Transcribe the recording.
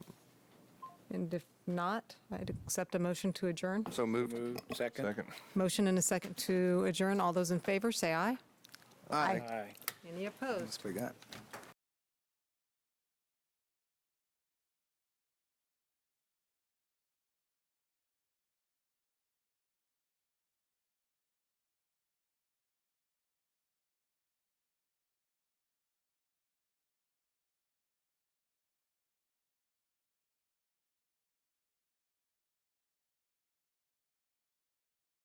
And if not, I'd accept a motion to adjourn. So moved. Moved. Second? Second. Motion and a second to adjourn. All those in favor, say aye. Aye. Aye. Any opposed? That's what we got.